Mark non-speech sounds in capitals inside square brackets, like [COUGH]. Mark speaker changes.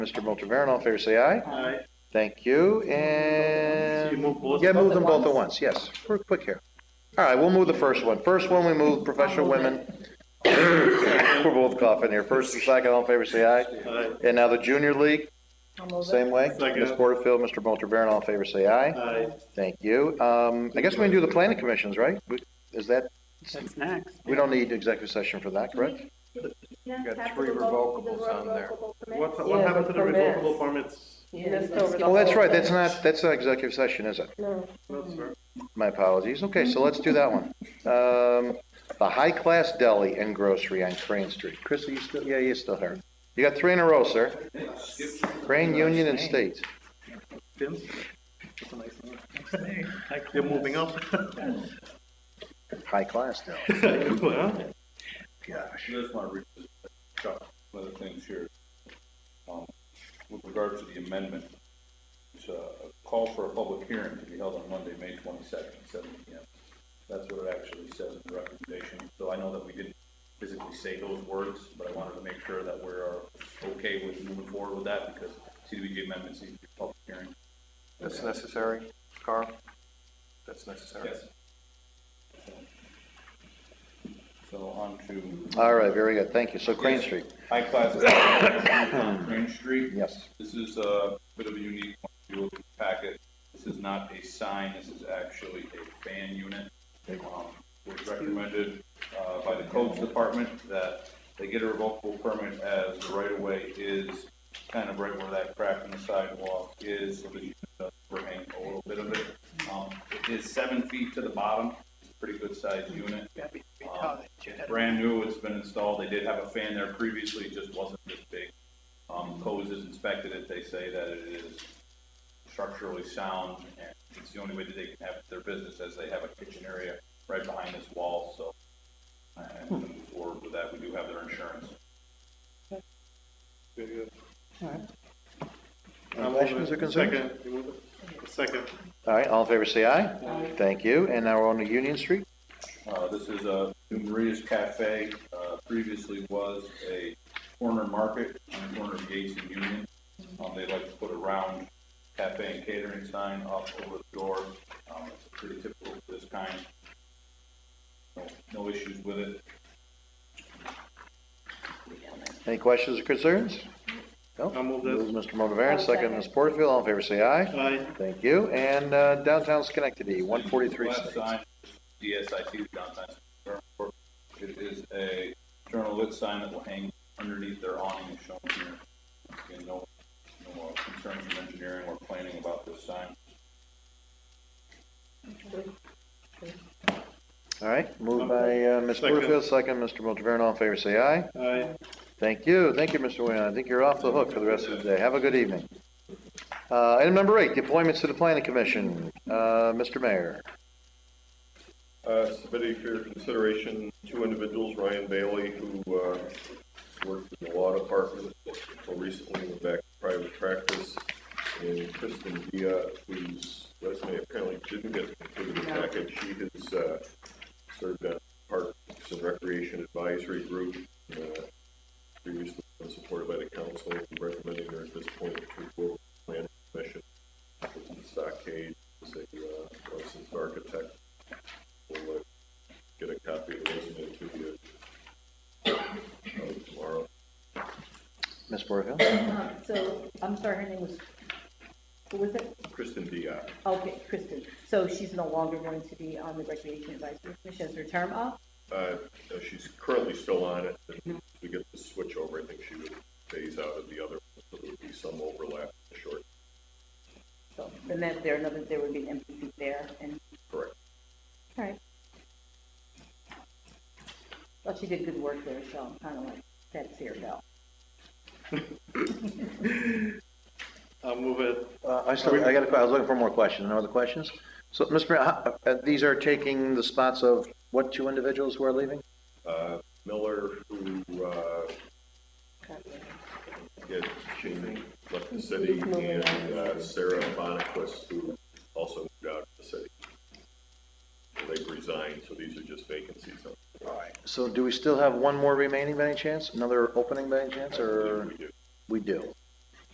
Speaker 1: Mr. Mulderbaran, all in favor, say aye.
Speaker 2: Aye.
Speaker 1: Thank you,
Speaker 2: So you
Speaker 1: and,
Speaker 2: move both?
Speaker 1: yeah, move them both at once, yes, we're quick here. All right, we'll move the first one. First one, we move professional women. [COUGHS] We're both coughing here. First and second, all in favor, say aye.
Speaker 2: Aye.
Speaker 1: And now the junior league,
Speaker 3: I'll move it.
Speaker 1: same way.
Speaker 2: Second.
Speaker 1: Ms. Porterfield, Mr. Mulderbaran, all in favor, say aye.
Speaker 2: Aye.
Speaker 1: Thank you. Um, I guess we can do the planning commissions, right? We- Is that,
Speaker 2: That's next.
Speaker 1: we don't need executive session for that, correct?
Speaker 4: Got three revocables on there.
Speaker 2: What,
Speaker 3: Yeah,
Speaker 2: what
Speaker 3: the
Speaker 2: happened to the
Speaker 3: permits.
Speaker 2: revocable permits?
Speaker 1: Oh, that's right, that's not, that's not executive session, is it?
Speaker 3: No.
Speaker 2: That's right.
Speaker 1: My apologies. Okay, so let's do that one. Um, the High Class Deli and Grocery on Crane Street. Chris, are you still, yeah, you're still here. You got three in a row, sir. Crane, Union, and State.
Speaker 2: You're moving up.
Speaker 1: High Class Deli.
Speaker 2: Well,
Speaker 5: I just want to revisit Chuck, one of the things here. Um, With regard to the amendment, it's a a call for a public hearing to be held on Monday, May twenty-second, seven P M. That's what it actually says in the recommendation, so I know that we didn't physically say those words, but I wanted to make sure that we're uh, okay with moving forward with that, because CDBG amendments need to be public hearing.
Speaker 6: That's necessary, Carl? That's necessary.
Speaker 5: So on to
Speaker 1: All right, very good. Thank you. So Crane Street,
Speaker 5: high class, Green Street.
Speaker 1: yes.
Speaker 5: This is a bit of a unique one, if you look at the packet, this is not a sign, this is actually a fan unit. Um, It was recommended, uh, by the codes department that they get a revocable permit as the right-of-way is kind of right where that crack in the sidewalk is, so that you can overhang a little bit of it. Um, it is seven feet to the bottom, it's a pretty good sized unit. Um, It's brand new, it's been installed, they did have a fan there previously, it just wasn't this big. Um, Coes has inspected it, they say that it is structurally sound, and it's the only way that they can have their business, as they have a kitchen area right behind this wall, so. And to move forward with that, we do have their insurance.
Speaker 2: very [LAUGHS] good.
Speaker 1: Any questions or concerns?
Speaker 2: Second, you move it. Second.
Speaker 1: All right, all in favor, say aye. Thank you. And now we're on to Union Street.
Speaker 5: Uh, this is a New Maria's Cafe, uh, previously was a corner market on the corner of Yates and Union. Um, they like to put a round cafe and catering sign up over the door. Um, it's pretty typical of this kind. No, no issues with it.
Speaker 1: Any questions or concerns? No?
Speaker 2: I'll move this.
Speaker 1: Moves Mr. Motivaren, second Ms. Porterfield, all in favor, say aye.
Speaker 2: Aye.
Speaker 1: Thank you. And uh, downtown Schenectady, one forty-three
Speaker 5: Last
Speaker 1: State.
Speaker 5: sign, DSIT, downtown. Square. It is a journal lit sign that will hang underneath their awning as shown here. Again, no, no uh, concerns from engineering or planning about this sign.
Speaker 1: All right, moved by uh, Ms.
Speaker 2: Second.
Speaker 1: Porterfield, second Mr. Motivaren, all in favor, say aye.
Speaker 2: Aye.
Speaker 1: Thank you, thank you, Mr. Whalen. I think you're off the hook for the rest of the day. Have a good evening. Uh, Item number eight, the appointments to the planning commission. Uh, Mr. Mayor,
Speaker 7: Uh, submitting for your consideration, two individuals, Ryan Bailey, who, uh, worked in the law department until recently went back to private practice, and Kristen Dia, whose resume apparently didn't get included in the package, she has, uh, served on Parks and Recreation Advisory Group, uh, previously been supported by the council, recommending her at this point to go to the plan commission. Stockade is a, uh, licensed architect we'll uh, get a copy of the resume to you uh, tomorrow.
Speaker 1: Ms. Porterfield?
Speaker 4: Uh, [LAUGHS] So, I'm sorry, her name was, who was it?
Speaker 7: Kristen Diak.
Speaker 4: Okay, Kristen. So she's no longer going to be on the Recreation Advisory Commission, as her term up?
Speaker 7: Uh, uh, she's currently still on it, and if we get the switch over, I think she would phase out of the other, one, so there would be some overlap in the short,
Speaker 4: So, and that there, another, there would be an empty seat there, and,
Speaker 7: correct.
Speaker 4: all right. Well, she did good work there, so I'm kind of like, that's here, though.
Speaker 2: I'll move it.
Speaker 1: Uh, I still, I got a que- I was looking for more questions. No other questions? So, Mr. Mayor, how- uh, these are taking the spots of what two individuals who are leaving?
Speaker 7: Uh, Miller, who, uh, had, she left the city, and uh, Sarah Bonnequist, who also moved out of the city. They've resigned, so these are just vacancies.
Speaker 1: All right. So do we still have one more remaining by any chance? Another opening by any chance, or
Speaker 7: We do.
Speaker 1: we do?